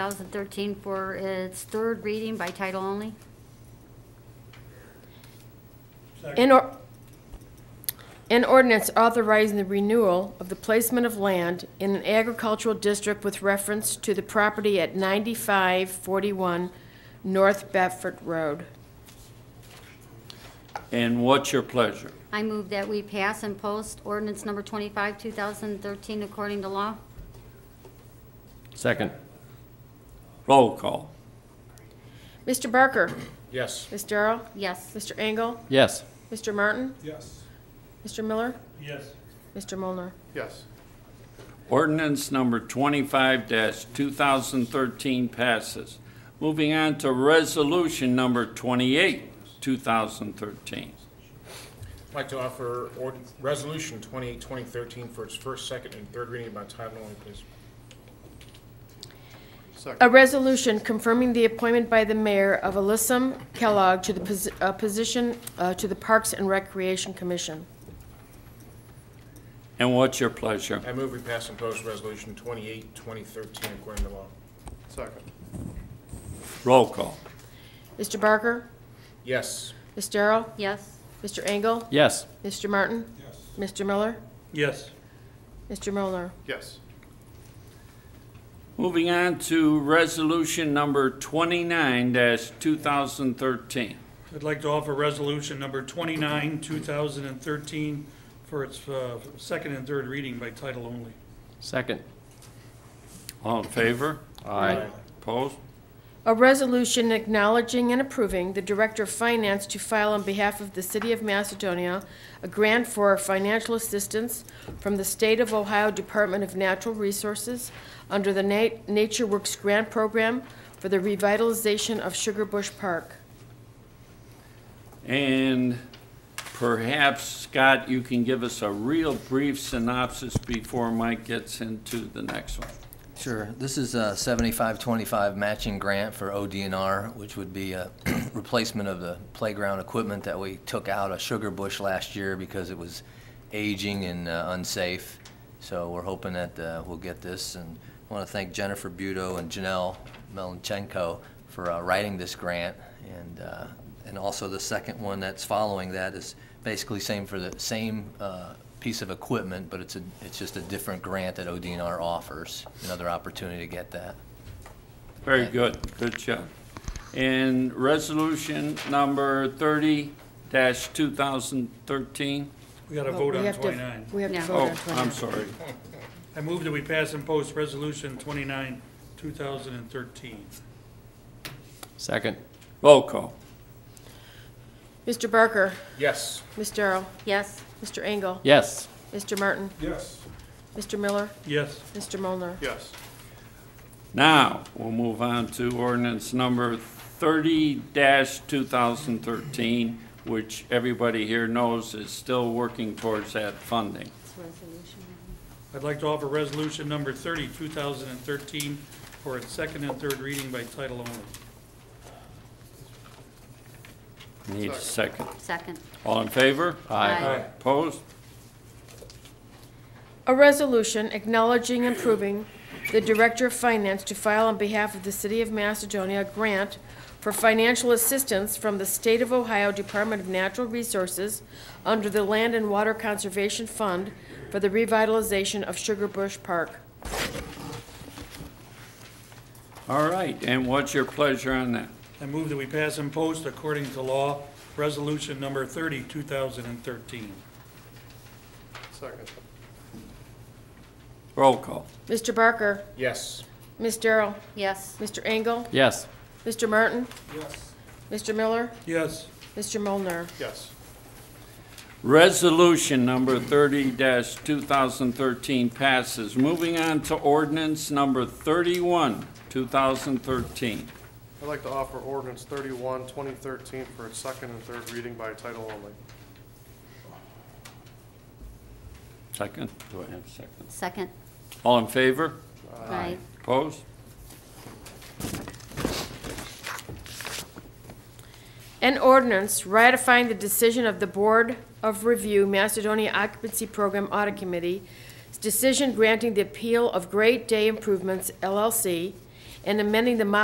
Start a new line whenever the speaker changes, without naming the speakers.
2013 for its third reading by title only.
An or, an ordinance authorizing the renewal of the placement of land in an agricultural district with reference to the property at ninety-five forty-one North Bedford Road.
And what's your pleasure?
I move that we pass and post ordinance number 25, 2013 according to law.
Second.
Roll call.
Mr. Barker?
Yes.
Ms. Darrow?
Yes.
Mr. Engel?
Yes.
Mr. Martin?
Yes.
Mr. Miller?
Yes.
Mr. Mulner?
Yes.
Ordinance number twenty-five two thousand thirteen passes. Moving on to resolution number twenty-eight, two thousand thirteen.
I'd like to offer ord- Resolution 28, 2013 for its first, second, and third reading by title only, please.
A resolution confirming the appointment by the mayor of Alyssum Kellogg to the posi- uh, position, uh, to the Parks and Recreation Commission.
And what's your pleasure?
I move we pass and post Resolution 28, 2013 according to law.
Second.
Roll call.
Mr. Barker?
Yes.
Ms. Darrow?
Yes.
Mr. Engel?
Yes.
Mr. Martin?
Yes.
Mr. Miller?
Yes.
Mr. Mulner?
Yes.
Moving on to resolution number twenty-nine two thousand thirteen.
I'd like to offer resolution number 29, 2013, for its uh, second and third reading by title only.
Second.
All in favor?
Aye.
Opposed?
A resolution acknowledging and approving the Director of Finance to file on behalf of the City of Macedonia a grant for financial assistance from the State of Ohio Department of Natural Resources under the Na- Nature Works Grant Program for the revitalization of Sugar Bush Park.
And perhaps, Scott, you can give us a real brief synopsis before Mike gets into the next one.
Sure. This is a 75-25 matching grant for ODNR, which would be a replacement of the playground equipment that we took out of Sugar Bush last year because it was aging and uh, unsafe. So we're hoping that uh, we'll get this. And I want to thank Jennifer Budo and Janelle Melanchenko for uh, writing this grant. And, uh, and also the second one that's following that is basically same for the same uh, piece of equipment, but it's a, it's just a different grant that ODNR offers, another opportunity to get that.
Very good, good job. And resolution number thirty two thousand thirteen?
We got to vote
Oh, We
on
have to-
29.
We have to
Yeah.
vote
Oh,
on 29.
I'm sorry.
I move that we pass and post resolution 29, 2013.
Second.
Roll call.
Mr. Barker,
Yes.
Ms. Darrow,
Yes.
Mr. Engel,
Yes.
Mr. Martin,
Yes.
Mr. Miller,
Yes.
Mr. Mulner.
Yes.
Now, we'll move on to ordinance number thirty two thousand thirteen, which everybody here knows is still working towards that funding.
It's resolution.
I'd like to offer resolution number 30, 2013, for its second and third reading by title only.
Need a second.
Second.
All in favor?
Aye.
Opposed?
A resolution acknowledging and approving the Director of Finance to file on behalf of the City of Macedonia a grant for financial assistance from the State of Ohio Department of Natural Resources under the Land and Water Conservation Fund for the revitalization of Sugar Bush Park.
All right, and what's your pleasure on that?
I move that we pass and post according to law resolution number 30, 2013.
Second.
Roll call.
Mr. Barker,
Yes.
Ms. Darrow,
Yes.
Mr. Engel,
Yes.
Mr. Martin,
Yes.
Mr. Miller,
Yes.
Mr. Molnar.
Yes.
Resolution number thirty two thousand thirteen passes. Moving on to ordinance number thirty-one, two thousand thirteen.
I'd like to offer ordinance 31, 2013 for its second and third reading by title only.
Second? Do I have a second?
Second.
All in favor?
Right.
Opposed?
An ordinance ratifying the decision of the Board of Review Macedonia Occupancy Program Audit Committee's decision granting the appeal of Great Day Improvements LLC and amending the Mount